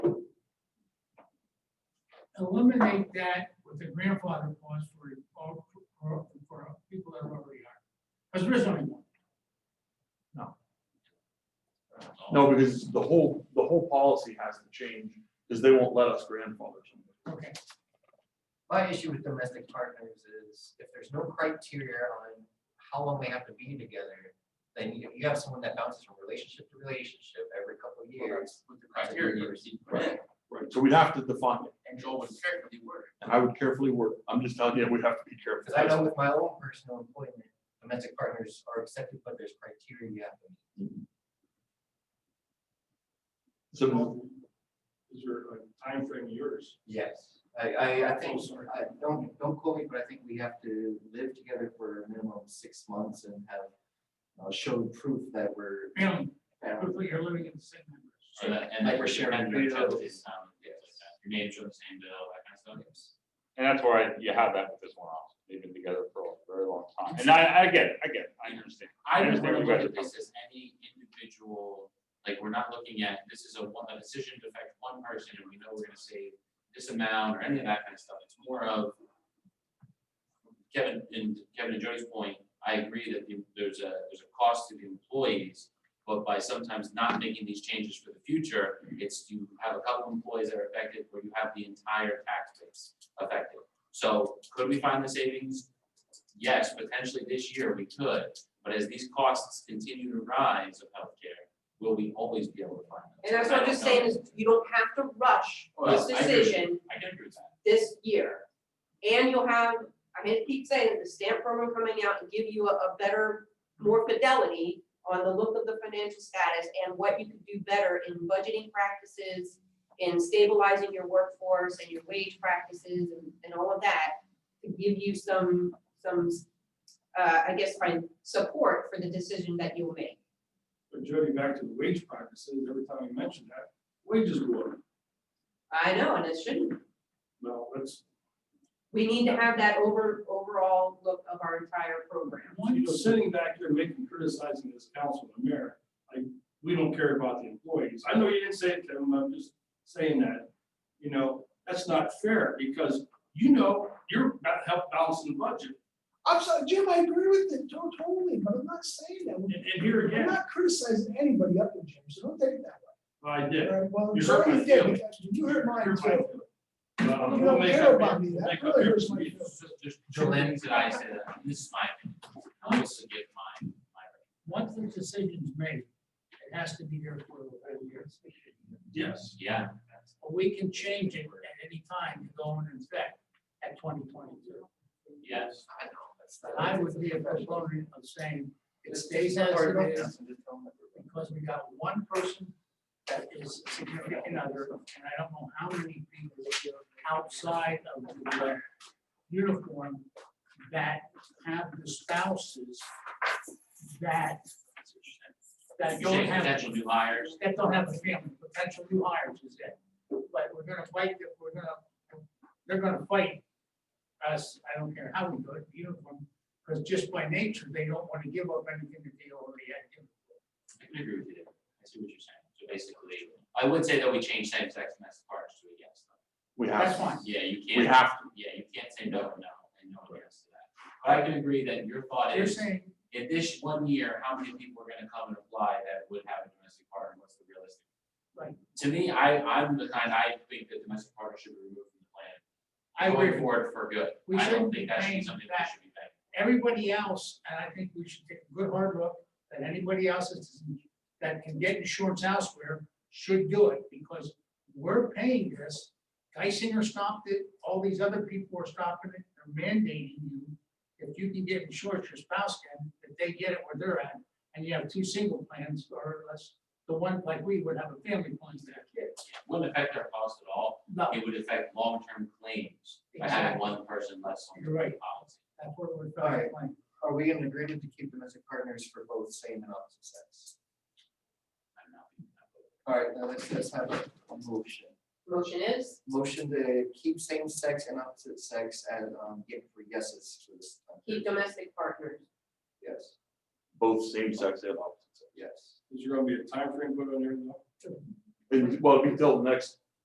eliminate that with the grandfather clause for, all- for, for people that already are. Because there is only one. No, because the whole, the whole policy has to change, because they won't let us grandfather somebody. Okay, My issue with domestic partners is if there's no criteria on how long they have to be together, then you, you have someone that bounces from relationship to relationship every couple of years. with the criteria you received. from it, Right, so we'd have to define it, And Joel was carefully worded. and I would carefully work, I'm just telling you, we'd have to be Because I know careful. with my own personal employment, domestic partners are accepted, but there's criteria you have to. meet. So, Is there a timeframe of yours? Yes, I, I, I think, Oh, sorry. I, don't, don't quote me, but I think we have to live together for a minimum of six months and have, uh, shown proof that we're, family, family. hopefully you're living in the same. So that, and Like we're that we're sharing sharing your food town, bills. is, um, yeah, like that. your neighbors are the same bill, that kind of stuff. And that's where I, you have that with this one officer, they've been together for a very long time, and I, I get it, I get it, I understand. I don't understand really where you look guys at are this as any individual, like, we're not looking at, this is a one, a decision to affect one person, and we know we're gonna save this amount or any of that kind of stuff, it's more of Kevin, and Kevin and Joey's point, I agree that the- there's a, there's a cost to the employees, but by sometimes not making these changes for the future, it's you have a couple employees that are affected, where you have the entire tax base affected. So could we find the savings? Yes, potentially this year we could, but as these costs continue to rise of healthcare, will we always be able to find them? And that's what I'm just saying is you don't have to rush this Well, I agree with you. decision I can agree with that. this year. And you'll have, I mean, I keep saying the stamp program coming out and give you a, a better, more fidelity on the look of the financial status and what you could do better in budgeting practices, in stabilizing your workforce and your wage practices and, and all of that, to give you some, some, uh, I guess, find support for the decision that you will make. But Jody, back to the wage practices, every time you mention that, wages go up. I know, and it shouldn't No, that's, We need to have that over, overall look of our entire program. you know, sitting back here making criticizing this council and mayor, like, we don't care about the employees. I know you didn't say it to them, I'm just saying that. You know, that's not fair because you know, you're about to help balance the budget. I'm sorry, Jim, I agree with it, don't totally, but I'm not saying that. And, and here I'm again, not criticizing anybody up in Jim, so don't take it that I did. way. All right, well, You hurt my you did, feelings. because You hurt mine Here's my too. feeling. Uh, You we'll don't make care up- about me, we'll that make up really here hurts for my you. feelings. There's- There's two lenses that I say that, and this is my opinion, I'll just give my, my. Once the decision's made, it has to be there for a year. Yes. Yeah, that's- But we can change it at any time to go in effect at twenty twenty-two. yes. I know, that's not. I would be a proponent of saying it stays as it is because we got one person that is significant other, and I don't know how many people outside of the uh, uniform that have the spouses that, that You're don't saying have potential new hires, that don't have a family, potential new hires is it. But we're gonna fight, that we're gonna, they're gonna fight us, I don't care how we do it, uniform, because just by nature, they don't wanna give up anything that they already had. given. I can agree with you, there. I see what you're saying, so basically, I would say that we change same-sex domestic partners to a yes. though. we That's fine. have, Yeah, you we can't, have to. yeah, you can't say no, or no, and no one yes to that, but I can agree that your thought They're is, saying, in this one year, how many people are gonna come and apply that would have a domestic partner, what's the realistic? Right. To me, I, I'm the kind, I think that domestic partner should be removed from the plan. I Going agree, forward for good. We I shouldn't don't be think that should be paying something that back. should be paid. everybody else, and I think we should take a good hard look, that anybody else that's- that can get insurance elsewhere should do it, because we're paying this. Geisinger stopped it, all these other people are stopping it, they're mandating you, if you can get insurance, your spouse can, if they get it where they're at, and you have two single plans, or less, the one like we would have a family plan to have kids. It Wouldn't affect our cost at all. No, It would affect long-term claims by having one person less on You're right. the policy. that's what we're All trying right. to plan. Are we in agreement to keep domestic partners for both same and opposite sex? I'm not being that vocal. All right, now let's, let's have a a motion. Motion is, Motion to keep same sex and opposite sex and, um, get for yeses for this. time. keep domestic partners. Yes, both same sex and opposite sex. yes. Is there gonna be a timeframe put on there? No? And, well, it'd be till the next